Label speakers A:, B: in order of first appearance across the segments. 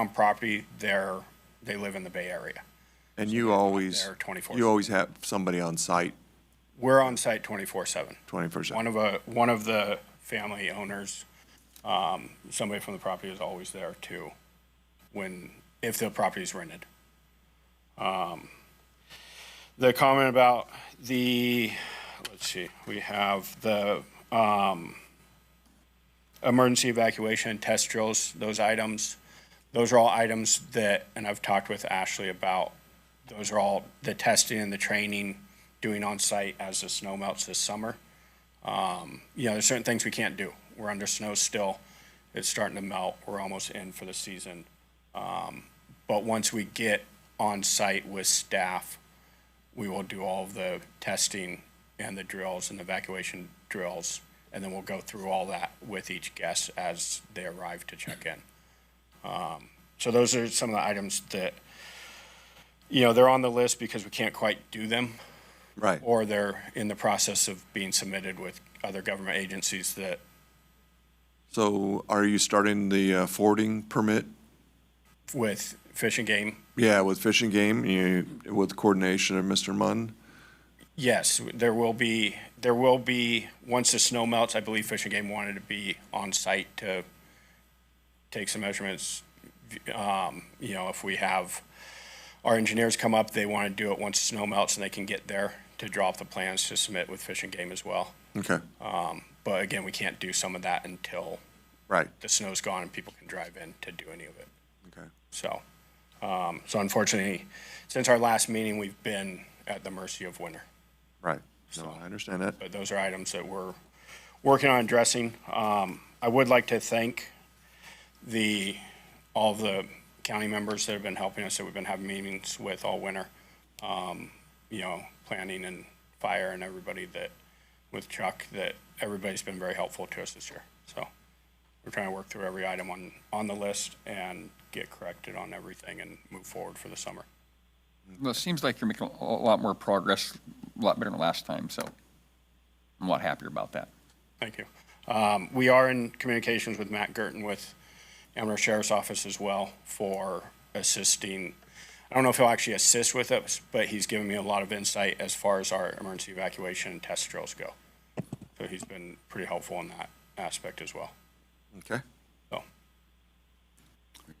A: on property, they're, they live in the Bay Area.
B: And you always,
A: there 24.
B: you always have somebody on site
A: We're on site twenty-four seven.
B: twenty-four
A: One
B: seven.
A: of a, one of the family owners, um, somebody from the property is always there too, when, if the property is rented. Um, The comment about the, let's see, we have the, um, emergency evacuation, test drills, those items. Those are all items that, and I've talked with Ashley about, those are all the testing and the training doing on site as the snow melts this summer you know, there's certain things we can't do. We're under snow still. It's starting to melt. We're almost in for the season. Um, but once we get on site with staff, we will do all of the testing and the drills and evacuation drills. And then we'll go through all that with each guest as they arrive to check in. Um, so those are some of the items that, you know, they're on the list because we can't quite do them
B: Right.
A: or they're in the process of being submitted with other government agencies that,
B: So are you starting the uh, forwarding permit?
A: with Fish and Game,
B: Yeah, with Fish and Game, you, with coordination of Mr. Munn?
A: yes, there will be, there will be, once the snow melts, I believe Fish and Game wanted to be on site to take some measurements. Um, you know, if we have our engineers come up, they want to do it once the snow melts and they can get there to draw up the plans to submit with Fish and Game as well.
B: Okay,
A: Uh, But again, we can't do some of that until
B: right,
A: the snow's gone and people can drive in to do any of it.
B: okay.
A: So, um, so unfortunately, since our last meeting, we've been at the mercy of winter.
B: Right. No, I understand that.
A: But those are items that we're working on addressing. Um, I would like to thank the, all the county members that have been helping us, that we've been having meetings with all winter. Um, you know, planning and fire and everybody that, with Chuck, that everybody's been very helpful to us this year. So we're trying to work through every item on, on the list and get corrected on everything and move forward for the summer.
C: Well, it seems like you're making a a lot more progress, a lot better than last time, so I'm a lot happier about that.
A: Thank you. Um, We are in communications with Matt Gerton with Amherst Sheriff's Office as well for assisting. I don't know if he'll actually assist with us, but he's given me a lot of insight as far as our emergency evacuation and test drills go. So he's been pretty helpful in that aspect as well.
B: Okay.
A: So,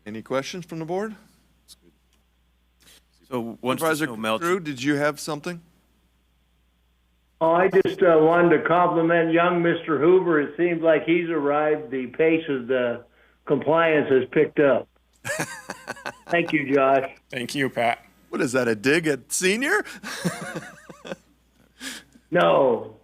B: Any questions from the board?
D: So once the
B: Supervisor
D: snow melts,
B: Crew, did you have something?
E: Oh, I just uh, wanted to compliment young Mr. Hoover. It seems like he's arrived. The pace of the compliance has picked up. Thank you, Josh.
A: thank you, Pat.
B: What is that, a dig at senior?
E: No,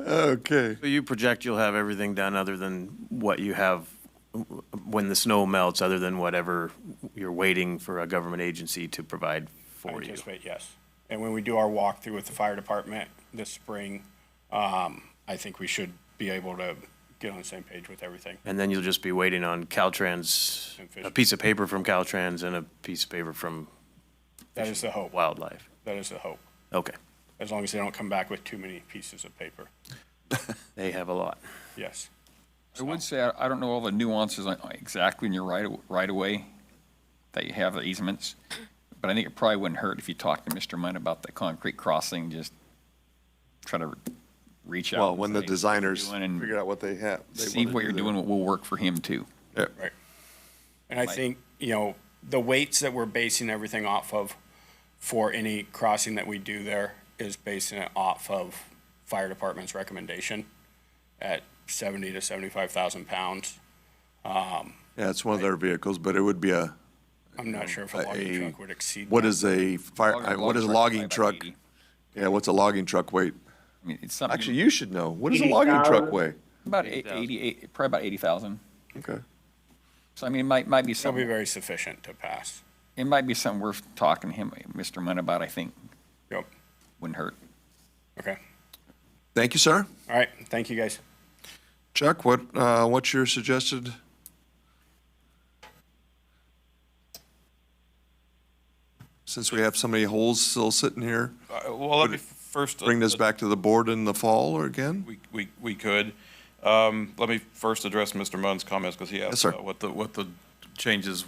B: Okay.
D: so you project you'll have everything done other than what you have w- when the snow melts, other than whatever you're waiting for a government agency to provide
A: I
D: for you.
A: anticipate yes. And when we do our walkthrough with the fire department this spring, um, I think we should be able to get on the same page with everything.
D: And then you'll just be waiting on Caltrans,
A: And fish.
D: a piece of paper from Caltrans and a piece of paper from
A: That is the hope.
D: Wildlife.
A: That is the hope.
D: Okay,
A: as long as they don't come back with too many pieces of paper.
D: they have a lot.
A: Yes.
C: I would say, I- I don't know all the nuances on- exactly in your right, right of way that you have the easements, but I think it probably wouldn't hurt if you talked to Mr. Munn about the concrete crossing, just try to reach out.
B: Well,
C: and
B: when the
C: say, "What you're
B: designers
C: doing," and
B: figure out what they have. they
C: See
B: wanna
C: what you're
B: do there.
C: doing, what will work for him too.
A: Right. And I
C: Like-
A: think, you know, the weights that we're basing everything off of for any crossing that we do there is basing it off of fire department's recommendation at seventy to seventy-five thousand pounds.
B: Yeah, it's one of their vehicles, but it would be a,
A: I'm not sure if a
B: Uh,
A: logging
B: a-
A: truck would exceed.
B: what
A: that.
B: is a fire, uh, what is a logging truck?
C: I
B: Yeah, what's a logging truck weight?
C: mean, it's something.
B: Actually, you should know. What does a logging truck
E: 80,000.
B: weigh?
C: About eight- 88, probably about 80,000.
B: Okay.
C: So I mean, it might, might
A: That'll
C: be
A: be
C: something,
A: very sufficient to pass.
C: it might be something worth talking to him, Mr. Munn about, I think,
A: Yep.
C: wouldn't hurt.
A: Okay.
B: Thank you, sir.
A: All right. Thank you, guys.
B: Chuck, what, uh, what's your suggested? Since we have so many holes still sitting here,
F: Uh, Well, let me first. uh,
B: bring this back to the board in the fall or again?
F: We, we, we could. Um, let me first address Mr. Munn's comments because he asked
B: Yes, sir.
F: about what the, what the changes